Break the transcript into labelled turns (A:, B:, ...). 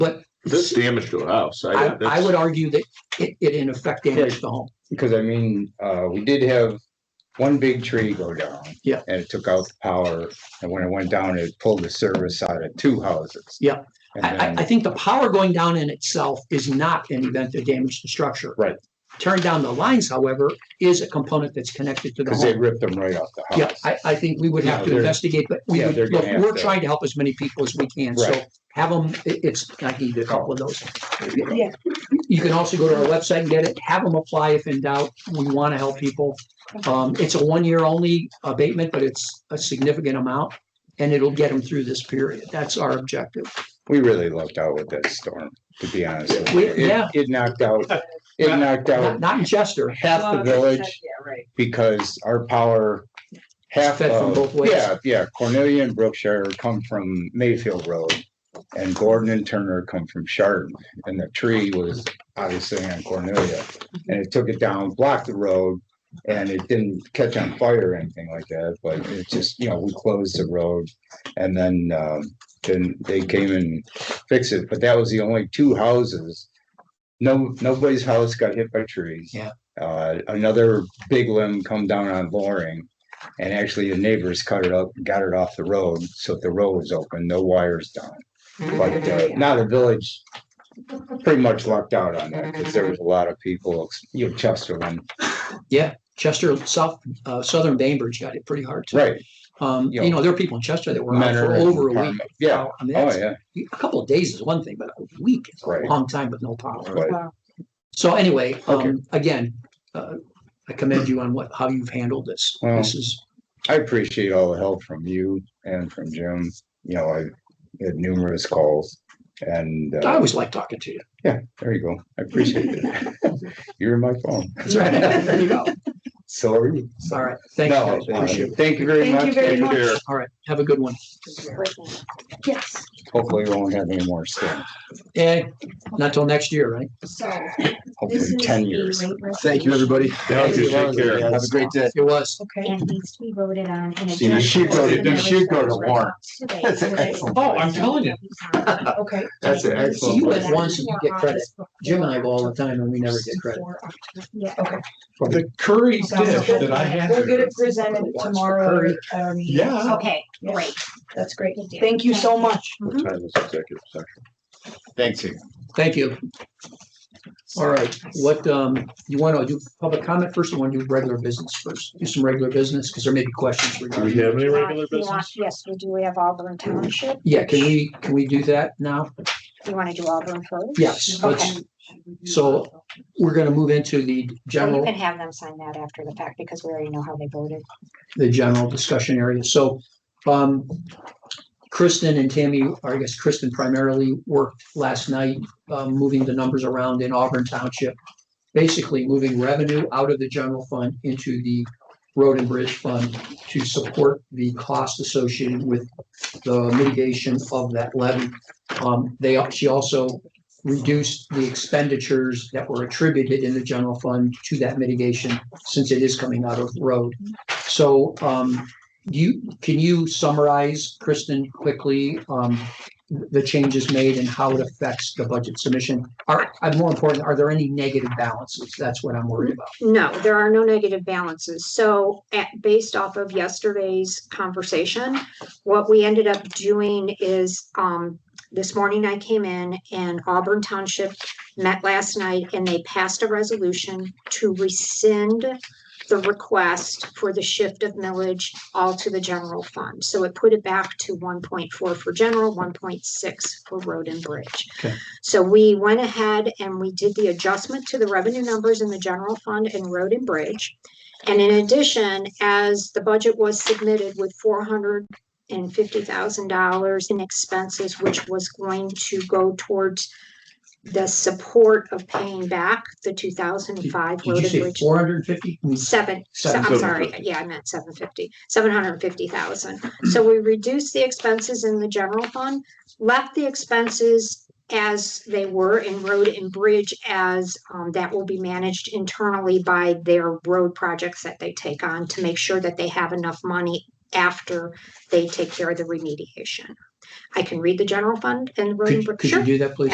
A: But
B: This damage to a house.
A: I, I
B: that's-
A: would argue that it, it in effect damaged the home.
C: Because I mean, uh, we did have one big tree go down.
A: Yeah.
C: And it took out the power, and when it went down, it pulled the service out of two houses.
A: Yeah.
C: And
A: I, I, I
C: then,
A: think the power going down in itself is not an event that damaged the structure.
C: Right.
A: Tearing down the lines, however, is a component that's connected to the
C: because they
A: home.
C: ripped them right off the
A: Yeah,
C: house.
A: I, I think we would have
C: Yeah,
A: to
C: they're-
A: investigate, but we
C: yeah,
A: would,
C: they're
A: look,
C: gonna have
A: we're
C: to-
A: trying to help as many people as we can, so
C: Right.
A: have them, it's, I need a couple of those.
D: Yeah.
A: You can also go to our website and get it, have them apply if in doubt, we want to help people. Um, it's a one-year only abatement, but it's a significant amount, and it'll get them through this period, that's our objective.
C: We really lucked out with that storm, to be honest. with
A: We-
C: you. It-
A: yeah.
C: It knocked out, it knocked
A: Not,
C: out
A: not in Chester,
C: half the village
D: Yeah, right.
C: because our power. Half
A: fed from both
C: of,
A: ways.
C: yeah, yeah, Cornelia and Brookshire come from Mayfield Road. And Gordon and Turner come from Chardon, and the tree was obviously on Cornelia. And it took it down, blocked the road, and it didn't catch on fire or anything like that, but it just, you know, we closed the road. And then, um, then they came and fixed it, but that was the only two houses. No, nobody's house got hit by trees.
A: Yeah.
C: Uh, another big limb come down on Loring. And actually the neighbors cut it up, got it off the road, so the road was open, no wires down. But uh, now the village pretty much lucked out on that because there was a lot of people, you know, Chesterland,
A: yeah, Chester, South, uh, Southern Bainbridge got it pretty hard too.
C: right?
A: Um, you
C: Yeah.
A: know, there are people in Chester that were out for
C: Menor and
A: over a week.
C: Parma. Yeah,
A: I mean,
C: oh,
A: that's,
C: yeah,
A: a couple of days is one thing, but a week is a
C: Right.
A: long time with no power.
C: Right.
A: So anyway,
C: Okay.
A: um, again, uh, I commend you on what, how you've handled this.
C: Well,
A: This is,
C: I appreciate all the help from you and from Jim, you know, I had numerous calls. And
A: I
C: uh,
A: always like talking to you.
C: there you go, I appreciate it. You're in my phone,
A: That's right. There you go.
C: so are you.
A: All right. Thank
C: No,
A: you. guys. Appreciate it.
C: uh, Thank you very
D: Thank you
C: much,
D: very
C: and
D: much.
B: Here.
A: All right. Have a good one.
D: Yes,
C: hopefully we won't have any more storms,
A: And not till next year, right?
D: so.
C: hopefully in ten years.
E: Thank you, everybody.
B: Thank you. Take care.
E: Have a great day.
A: It was.
D: Okay.
F: and needs to be voted on. and
E: See, you should go to- you should go to warrant.
F: That's
A: Oh, I'm telling you.
D: Okay. Uh,
E: That's an
A: So you
E: excellent.
A: went once and you get credit. Jim and I go all the time and we never get credit.
F: Yeah.
G: The curry dish that I had.
D: We'll get it presented tomorrow
G: Curry.
D: at our meeting.
G: Yeah.
D: So,
F: Okay, great.
D: That's great.
F: Good deal.
D: Thank you so much.
B: What time is executive session?
E: Thanks, you.
A: Thank you. All right, what, um, you want to do public comment first or want to do regular business first? Do some regular business because there may be questions
B: Do we
A: regarding.
B: have any
F: Uh,
B: regular
F: you want-
B: business?
F: Yes, we do. We have Auburn Township.
A: Yeah, can we, can we do that now?
F: You want to do Auburn first?
A: Yes, let's,
F: Okay.
A: so we're going to move into the
F: Well, you
A: general,
F: can have them sign that after the fact because we already know how they voted.
A: the general discussion area. So, um, Kristen and Tammy, or I guess Kristen primarily worked last night, um, moving the numbers around in Auburn Township. Basically moving revenue out of the general fund into the road and bridge fund to support the cost associated with the mitigation of that levy. Um, they, al- she also reduced the expenditures that were attributed in the general fund to that mitigation since it is coming out of the road. So, um, do you, can you summarize, Kristen, quickly, um, the changes made and how it affects the budget submission? Are, uh, more important, are there any negative balances? That's what I'm worried about.
H: No, there are no negative balances. So at, based off of yesterday's conversation, what we ended up doing is, um, this morning I came in and Auburn Township met last night and they passed a resolution to rescind the request for the shift of millage all to the general fund. So it put it back to one point four for general, one point six for road and bridge. So we went ahead and we did the adjustment to the revenue numbers in the general fund and road and bridge. And in addition, as the budget was submitted with four hundred and fifty thousand dollars in expenses, which was going to go towards the support of paying back the two thousand and five
A: Did
H: road
A: you
H: and
A: say
H: bridge.
A: four hundred and fifty?
H: Seven, so- I'm
B: Seven.
H: sorry, yeah, I meant seven fifty, seven hundred and fifty thousand. So we reduced the expenses in the general fund, left the expenses as they were in road and bridge as um, that will be managed internally by their road projects that they take on to make sure that they have enough money after they take care of the remediation. I can read the general fund and road and
A: Could,
H: bridge.
A: could you
H: Sure.
A: do that, please?